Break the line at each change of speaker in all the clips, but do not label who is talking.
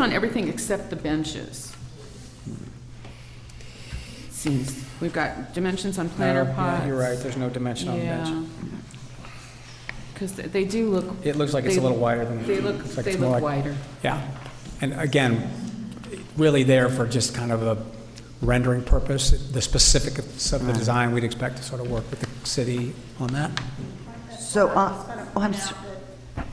on everything except the benches. Seems, we've got dimensions on planter
No,
pots.
Oh, yeah, You're right, there's no dimension on the bench.
Because they do look,
It looks like it's a
They-
little wider than.
they look,
it's like
they
it's more
look
like-
wider.
Yeah, and again, really there for just kind of a rendering purpose. The specifics of the design, we'd expect to sort of work with the city on that.
So, uh, oh, I'm, s-
Um,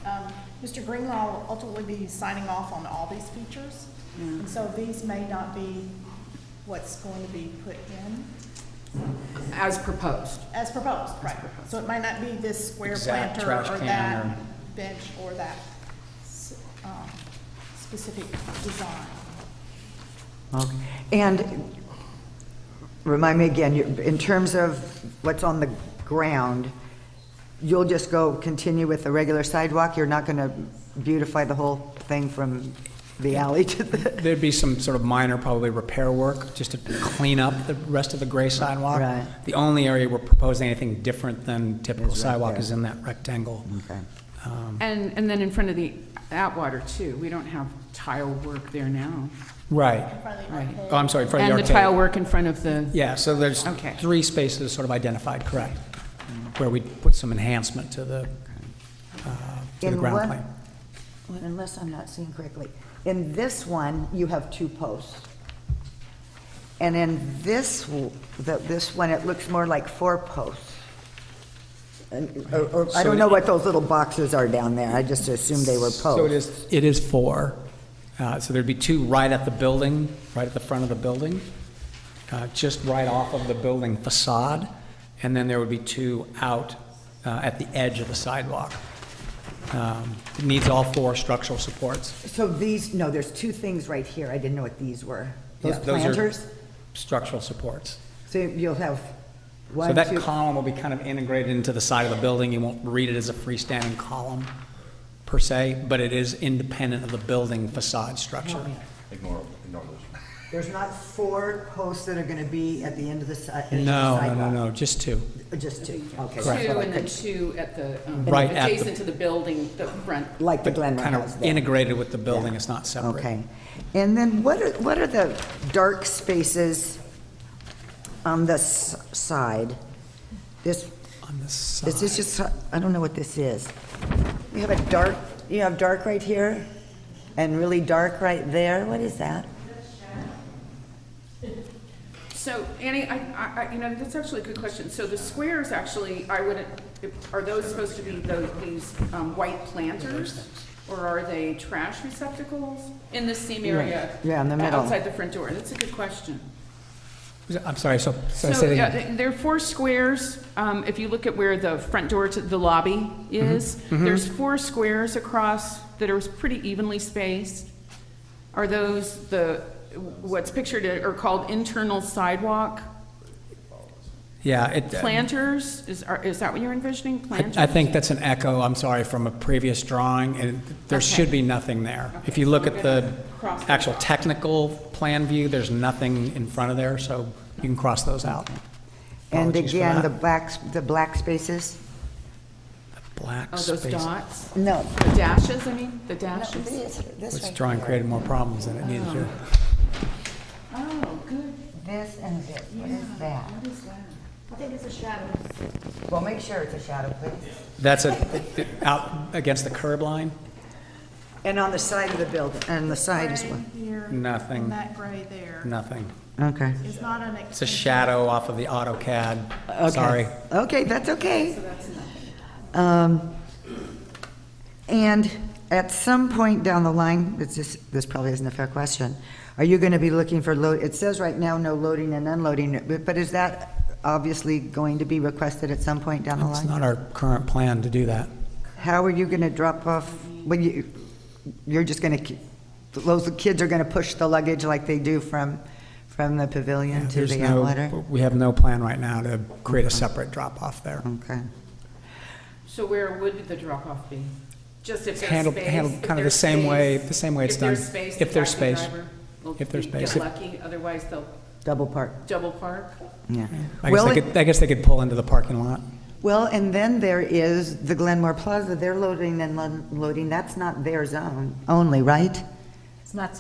Mr. Greenlaw will ultimately be signing off on all these features,
Mm.
and so these may not be what's going to be put in
as proposed.
as proposed, right? So it might not be this square
Exact
planter
trash
or
can or-
that bench or that s- um, specific design.
okay. and remind me again, you- in terms of what's on the ground, you'll just go continue with the regular sidewalk? You're not going to beautify the whole thing from the alley to the,
There'd be some sort of minor, probably repair work, just to clean up the rest of the gray sidewalk.
Right.
The only area we're proposing anything different than typical
Is right
sidewalk
there.
is in that rectangle.
okay.
Um.
And, and then in front of the Atwater too, we don't have tile work there now.
Right.
Probably
Right.
Oh, I'm sorry, for the
And the
arcade.
tile work in front of the,
Yeah, so there's
Okay.
three spaces sort of identified, correct, where we put some enhancement to the, uh, to the
In
ground
what-
plane.
Unless I'm not seeing correctly. In this one, you have two posts. And in this, w- the- this one, it looks more like four posts. And- or- or-
So
I don't know
it-
what those little boxes are down there. I just assumed they were posts.
So it is, it is four. Uh, So there'd be two right at the building, right at the front of the building, uh, just right off of the building facade, and then there would be two out uh, at the edge of the sidewalk. Um, It needs all four structural supports.
So these, no, there's two things right here. I didn't know what these were. Those
Yeah, are
planters?
Structural supports.
So you'll have
So
one,
that
two,
column will be kind of integrated into the side of the building. You won't read it as a freestanding column per se, but it is independent of the building facade structure.
Oh,
Ignore, ignore those.
there's not four posts that are going to be at the end of the si- edge of the
No, no, no,
sidewalk?
no, just two.
Just two,
two
okay. that's what I
and then
couldn't-
two at the, um,
Right at the-
adjacent to the building, the front.
Like the Glenmore
Kind
House
of
there.
integrated with the building,
Yeah.
it's not separate.
Okay. And then what are, what are the dark spaces on this side? This,
On this
is this
side,
just, I don't know what this is. You have a dark, you have dark right here and really dark right there. What is that?
So Annie, I, I, I- you know, that's actually a good question. So the squares actually, I wouldn't, are those supposed to be those, these um, white planters? Or are they trash receptacles in the seam area?
Yeah, in the middle.
Outside the front door, that's a good question.
I'm sorry, so, so I
So,
said
yeah,
again.
th- there are four squares, um, if you look at where the front door to the lobby
Mm-hmm.
is, there's four squares across that are pretty evenly spaced. Are those the, what's pictured or called internal sidewalk
yeah, it,
planters? Is, are- is that what you're envisioning,
I-
planters?
I think that's an echo, I'm sorry, from a previous drawing, and there
Okay.
should be nothing there. If you look at the
Cross those
actual technical plan view, there's nothing in front of there, so you can cross those out.
And
Apologies for
again,
that.
the blacks, the black spaces?
Black
Oh, those
space.
dots,
No.
the dashes, I mean, the
No,
dashes?
this- this
Which
right
drawing
here.
created more problems than it needed to.
Oh, good,
This and this, what is that?
what is that?
I think it's a shadow.
Well, make sure it's a shadow, please.
That's a, out against the curb line?
And on the side of the building, and the side as well.
Gray here,
Nothing.
And that gray there.
Nothing.
Okay.
It's not an
It's a
extension.
shadow off of the AutoCAD.
Okay.
Sorry.
Okay, that's okay. Um, And at some point down the line, it's just, this probably isn't a fair question, are you going to be looking for load, it says right now, no loading and unloading, but- but is that obviously going to be requested at some point down the
It's
line?
not our current plan to do that.
How are you going to drop off, when you, you're just going to, those kids are going to push the luggage like they do from, from the pavilion to
There's
the
no-
outletter?
We have no plan right now to create a separate drop-off there.
Okay.
So where would the drop-off be? Just if there's space?
handled- handled
if
kinda the
there's
same way-
space-
the same way it's
If there's
done.
space, the
If there's
taxi
space.
driver will
If there's
get
space.
lucky, otherwise they'll
Double park,
double park.
yeah.
I guess
Will
they
it-
could, I guess they could pull into the parking lot.
Well, and then there is the Glenmore Plaza, they're loading and unloading, that's not their zone only, right?
It's not